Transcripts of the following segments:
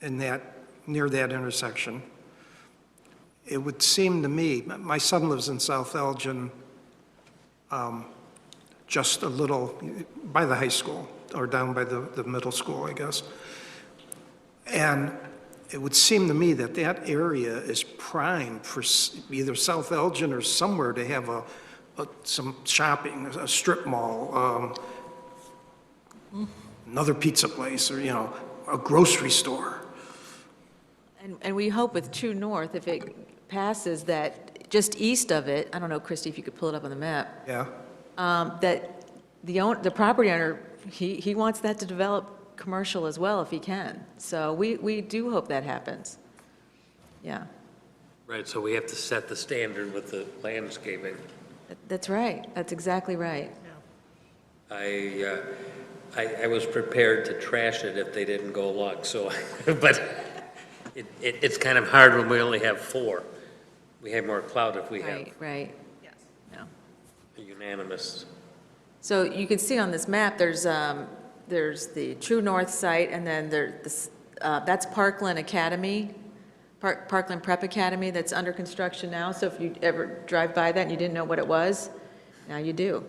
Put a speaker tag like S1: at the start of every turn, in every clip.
S1: in that, near that intersection. It would seem to me, my son lives in South Elgin, um, just a little, by the high school, or down by the, the middle school, I guess. And it would seem to me that that area is prime for s- either South Elgin or somewhere to have a, a- some shopping, a strip mall, um, another pizza place, or, you know, a grocery store.
S2: And, and we hope with True North, if it passes, that just east of it, I don't know, Christie, if you could pull it up on the map,
S1: Yeah,
S2: um, that the own, the property owner, he, he wants that to develop commercial as well if he can. So we, we do hope that happens. Yeah,
S3: Right, so we have to set the standard with the landscaping.
S2: That- that's right. That's exactly right.
S3: I, uh, I, I was prepared to trash it if they didn't go along, so, but it, it, it's kind of hard when we only have four. We have more clout if we have
S2: Right, right. Yes.
S3: a unanimous.
S2: So you can see on this map, there's, um, there's the True North site, and then there, this, uh, that's Parkland Academy, Park, Parkland Prep Academy that's under construction now, so if you ever drive by that and you didn't know what it was, now you do.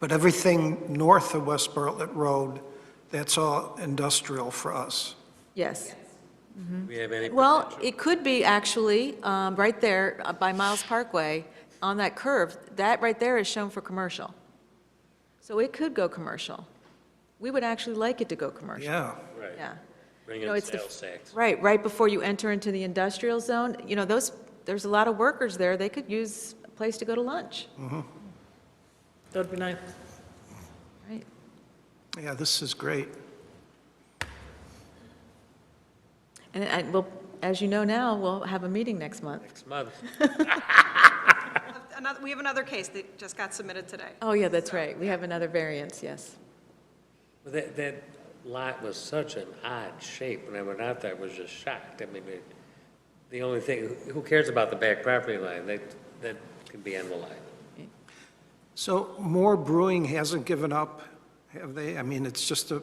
S1: but everything north of West Bartlett Road, that's all industrial for us.
S2: Yes.
S3: Do we have any?
S2: Mm-hmm. Well, it could be actually, um, right there uh, by Miles Parkway, on that curve, that right there is shown for commercial. So it could go commercial. We would actually like it to go commercial.
S1: Yeah,
S3: Right,
S2: Yeah.
S3: bring
S2: You know,
S3: in
S2: it's the-
S3: sales tax.
S2: Right, right before you enter into the industrial zone, you know, those, there's a lot of workers there, they could use a place to go to lunch,
S4: That'd be nice.
S2: right?
S1: yeah, this is great.
S2: And I, well, as you know now, we'll have a meeting next month.
S3: Next month,
S5: Another, we have another case that just got submitted today.
S2: Oh, yeah, that's right, we have another variance, yes.
S3: Well, that, that lot was such an odd shape, when I went out there, I was just shocked. I mean, it- the only thing, who cares about the back property line? That, that can be on the line.
S1: So Moore Brewing hasn't given up, have they? I mean, it's just a,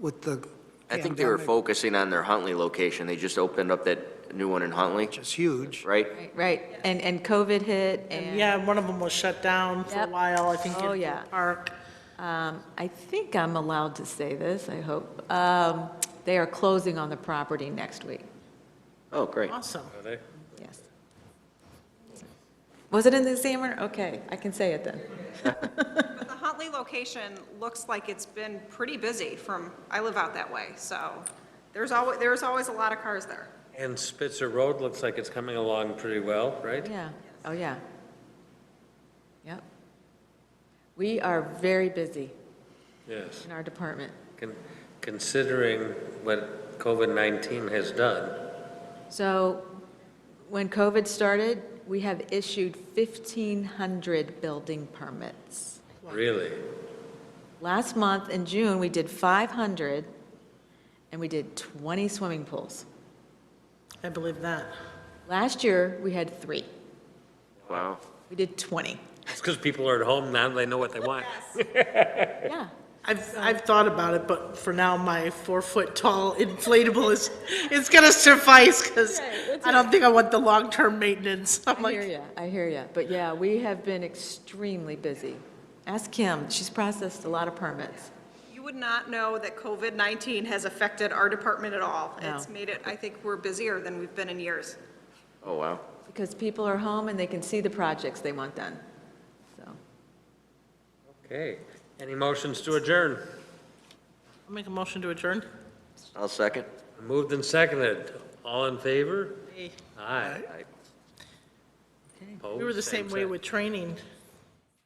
S1: with the
S6: I think they were
S1: pandemic,
S6: focusing on their Huntley location. They just opened up that new one in Huntley,
S1: which is huge.
S6: right?
S2: Right, Right, and, and COVID hit,
S4: And
S2: and
S4: yeah, one of them was shut down for a
S2: Yep.
S4: while, I think.
S2: Oh,
S4: in
S2: yeah.
S4: the Park.
S2: um, I think I'm allowed to say this, I hope. Um, They are closing on the property next week,
S6: Oh, great.
S4: Awesome.
S3: Are they?
S2: yes. Was it in the examiner? Okay, I can say it then.
S5: But the Huntley location looks like it's been pretty busy from, I live out that way, so there's always, there's always a lot of cars there.
S3: And Spitzer Road looks like it's coming along pretty well, right?
S2: Yeah, oh, yeah. Yep. We are very busy
S3: Yes.
S2: in our department.
S3: Con- Considering what COVID-19 has done,
S2: So when COVID started, we have issued 1,500 building permits.
S3: really,
S2: Last month, in June, we did 500, and we did 20 swimming pools.
S4: I believe that.
S2: Last year, we had three.
S6: Wow.
S2: We did 20.
S3: it's because people are at home now, they know what they want.
S2: Yeah.
S4: I've, I've thought about it, but for now, my four-foot-tall inflatable is, is gonna suffice, because I don't think I want the long-term maintenance. I'm
S2: I hear
S4: like,
S2: you, I hear you. But yeah, we have been extremely busy. Ask Kim, she's processed a lot of permits.
S5: You would not know that COVID-19 has affected our department at all.
S2: No.
S5: It's made it, I think we're busier than we've been in years.
S6: Oh, wow.
S2: Because people are home and they can see the projects they want done. So,
S3: Okay, any motions to adjourn?
S4: I'll make a motion to adjourn.
S6: I'll second.
S3: Moved and seconded, all in favor?
S4: Hey,
S3: Aye. Oh,
S4: We were the same way with training.